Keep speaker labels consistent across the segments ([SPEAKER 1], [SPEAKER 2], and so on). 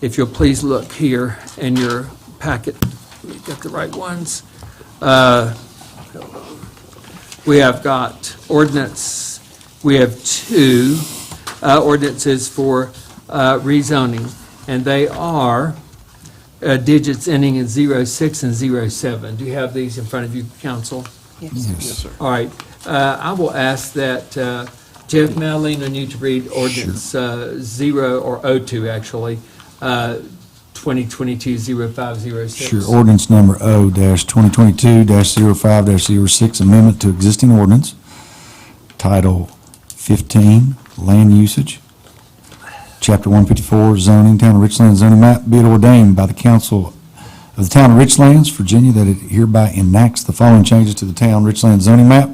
[SPEAKER 1] If you'll please look here in your packet, let me get the right ones. Uh, We have got ordinance, we have two uh, ordinances for uh, rezoning, and they are uh, digits ending in 06 and 07. Do you have these in front of you, council?
[SPEAKER 2] Yes, sir.
[SPEAKER 1] All right, uh, I will ask that uh, Jeff Malina need to read ordinance uh, zero, or O2 actually, uh, 2022-0506.
[SPEAKER 2] Sure. Ordinance number O-2022-05-06, amendment to existing ordinance, Title 15, Land Usage, Chapter 154, zoning, Town of Richlands zoning map, be it ordained by the council of the Town of Richlands, Virginia, that it hereby enacts the following changes to the Town Richlands zoning map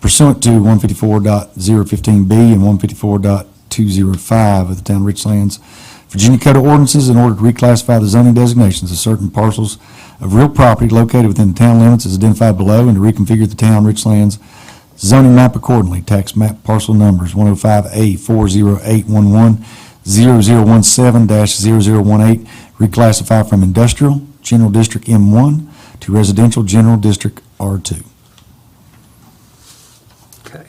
[SPEAKER 2] pursuant to 154.015B and 154.205 of the Town of Richlands, Virginia Code of Ordinances in order to reclassify the zoning designations of certain parcels of real property located within the town limits as identified below and to reconfigure the Town Richlands zoning map accordingly. Tax map parcel numbers 105A 40811 0017-0018, reclassify from industrial, general district M1 to residential, general district R2.
[SPEAKER 1] Okay.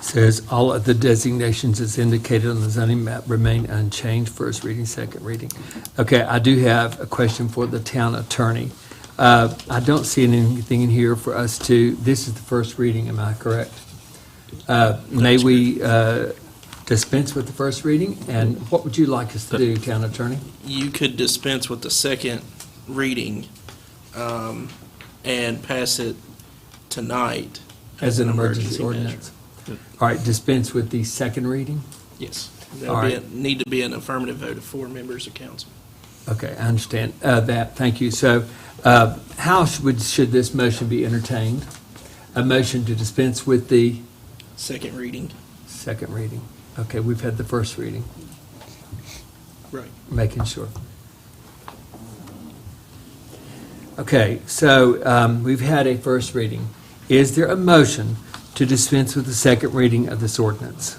[SPEAKER 1] Says all of the designations as indicated on the zoning map remain unchanged, first reading, second reading. Okay, I do have a question for the town attorney. Uh, I don't see anything in here for us to, this is the first reading, am I correct? Uh, May we uh, dispense with the first reading? And what would you like us to do, town attorney?
[SPEAKER 3] you could dispense with the second reading um, and pass it tonight.
[SPEAKER 1] As an emergency ordinance?
[SPEAKER 3] measure.
[SPEAKER 1] All right, dispense with the second reading?
[SPEAKER 3] Yes.
[SPEAKER 1] All
[SPEAKER 3] There'll be, a- need to be an affirmative vote of four members of council.
[SPEAKER 1] Okay, I understand uh, that, thank you. So uh, how should, should this motion be entertained? A motion to dispense with the
[SPEAKER 3] Second reading.
[SPEAKER 1] second reading? Okay, we've had the first reading,
[SPEAKER 3] Right.
[SPEAKER 1] making sure. Okay, so um, we've had a first reading. Is there a motion to dispense with the second reading of this ordinance?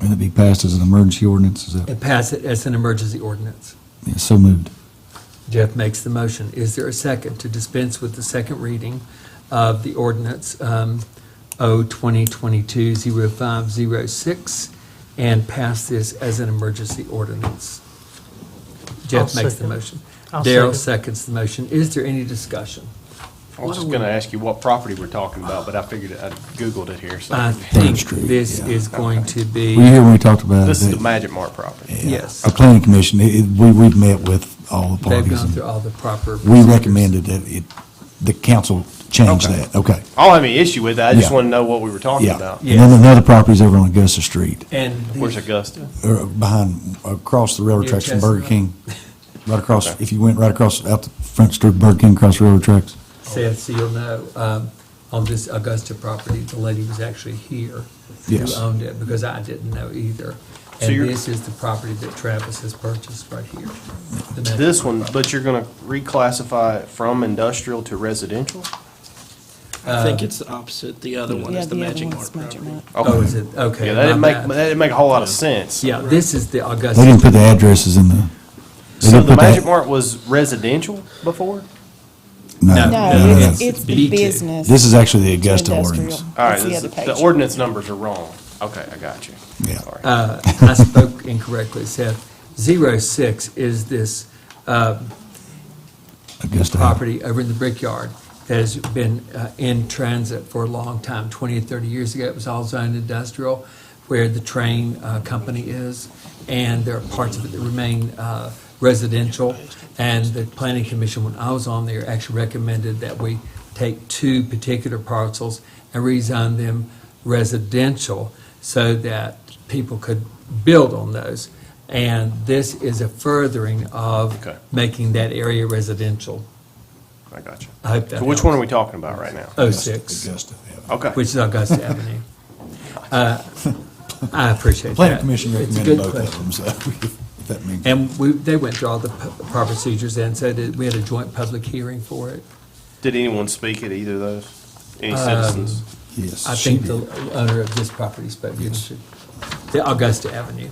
[SPEAKER 2] And it be passed as an emergency ordinance, is that,
[SPEAKER 1] And pass it as an emergency ordinance?
[SPEAKER 2] yeah, so moved.
[SPEAKER 1] Jeff makes the motion. Is there a second to dispense with the second reading of the ordinance um, O 2022-0506 and pass this as an emergency ordinance? Jeff
[SPEAKER 4] I'll
[SPEAKER 1] makes the
[SPEAKER 4] second.
[SPEAKER 1] motion.
[SPEAKER 4] I'll
[SPEAKER 1] Daryl
[SPEAKER 4] second.
[SPEAKER 1] seconds the motion. Is there any discussion?
[SPEAKER 5] I was just going to ask you what property we're talking about, but I figured, I Googled it here, so.
[SPEAKER 1] I think
[SPEAKER 2] Street,
[SPEAKER 1] this
[SPEAKER 2] yeah.
[SPEAKER 1] is going to be,
[SPEAKER 2] Were you here when we talked about it?
[SPEAKER 5] This is the
[SPEAKER 2] that-
[SPEAKER 5] Magic Mart property.
[SPEAKER 2] yeah,
[SPEAKER 1] yes.
[SPEAKER 2] Our planning commission, it- it- we, we've met with all the
[SPEAKER 1] they've
[SPEAKER 2] parties.
[SPEAKER 1] gone
[SPEAKER 2] and
[SPEAKER 1] through all the proper.
[SPEAKER 2] We
[SPEAKER 1] procedures.
[SPEAKER 2] recommended that it, the council change
[SPEAKER 5] Okay.
[SPEAKER 2] that, okay,
[SPEAKER 5] I don't have any issue with that, I just
[SPEAKER 2] Yeah.
[SPEAKER 5] want to know what we were talking
[SPEAKER 2] yeah.
[SPEAKER 5] about.
[SPEAKER 2] And then another property's over on Augusta Street,
[SPEAKER 1] And the-
[SPEAKER 5] Where's Augusta?
[SPEAKER 2] or behind, across the railroad
[SPEAKER 1] Near
[SPEAKER 2] tracks from Burger
[SPEAKER 1] Chestnut.
[SPEAKER 2] King. Right across,
[SPEAKER 5] Okay.
[SPEAKER 2] if you went right across, out the front street, of Burger King, across railroad tracks.
[SPEAKER 1] said, so you'll know, um, on this Augusta property, the lady was actually here
[SPEAKER 2] Yes.
[SPEAKER 1] who owned it, because I didn't know either.
[SPEAKER 5] So
[SPEAKER 1] And
[SPEAKER 5] you're-
[SPEAKER 1] this is the property that Travis has purchased right here. the next
[SPEAKER 5] This one, but you're going to reclassify it from industrial to residential?
[SPEAKER 3] I think it's the opposite. The other one
[SPEAKER 6] Yeah,
[SPEAKER 3] is the
[SPEAKER 6] the other
[SPEAKER 3] Magic Mart
[SPEAKER 6] one's Magic
[SPEAKER 3] property.
[SPEAKER 6] Mart.
[SPEAKER 1] Oh,
[SPEAKER 5] Okay.
[SPEAKER 1] is it, okay.
[SPEAKER 5] Yeah,
[SPEAKER 1] my
[SPEAKER 5] that didn't make,
[SPEAKER 1] bad.
[SPEAKER 5] that didn't make a whole lot of sense.
[SPEAKER 1] Yeah, this is the Augusta.
[SPEAKER 2] They didn't put the addresses in the. they
[SPEAKER 5] So
[SPEAKER 2] didn't
[SPEAKER 5] the
[SPEAKER 2] put
[SPEAKER 5] Magic Mart was residential before?
[SPEAKER 2] No,
[SPEAKER 1] No,
[SPEAKER 6] No,
[SPEAKER 2] no, no.
[SPEAKER 6] it's, it's the
[SPEAKER 1] B2.
[SPEAKER 6] business.
[SPEAKER 2] This is actually the Augusta
[SPEAKER 6] industrial.
[SPEAKER 2] ordinance.
[SPEAKER 5] All right,
[SPEAKER 6] That's the
[SPEAKER 5] this-
[SPEAKER 6] other
[SPEAKER 5] the
[SPEAKER 6] page.
[SPEAKER 5] ordinance numbers are wrong. Okay, I got you.
[SPEAKER 2] Yeah.
[SPEAKER 5] Sorry.
[SPEAKER 1] Uh, I spoke incorrectly, Seth. Zero six is this
[SPEAKER 2] Augusta.
[SPEAKER 1] property over in the Brickyard that has been uh, in transit for a long time, 20 or 30 years ago. It was all zoned industrial, where the train uh, company is, and there are parts of it that remain uh, residential. And the planning commission, when I was on there, actually recommended that we take two particular parcels and rezone them residential so that people could build on those. And this is a furthering of
[SPEAKER 5] Okay.
[SPEAKER 1] making that area residential.
[SPEAKER 5] I got you.
[SPEAKER 1] I hope that
[SPEAKER 5] So which
[SPEAKER 1] helps.
[SPEAKER 5] one are we talking about right now?
[SPEAKER 1] Oh,
[SPEAKER 2] Augusta,
[SPEAKER 1] six, Oh,
[SPEAKER 2] Augusta, yeah.
[SPEAKER 5] Okay.
[SPEAKER 1] which is Augusta Avenue. Uh, I appreciate that.
[SPEAKER 2] Planning Commission
[SPEAKER 1] It's a
[SPEAKER 2] recommended
[SPEAKER 1] good
[SPEAKER 2] both
[SPEAKER 1] question.
[SPEAKER 2] of them, so if that means.
[SPEAKER 1] And we, they went through all the pu- proper procedures and said that we had a joint public hearing for it.
[SPEAKER 5] Did anyone speak at either of those?
[SPEAKER 1] Um,
[SPEAKER 5] Any citizens?
[SPEAKER 2] Yes.
[SPEAKER 1] I
[SPEAKER 2] she
[SPEAKER 1] think
[SPEAKER 2] did.
[SPEAKER 1] the owner of this property spoke. to
[SPEAKER 2] Yes.
[SPEAKER 1] The Augusta Avenue.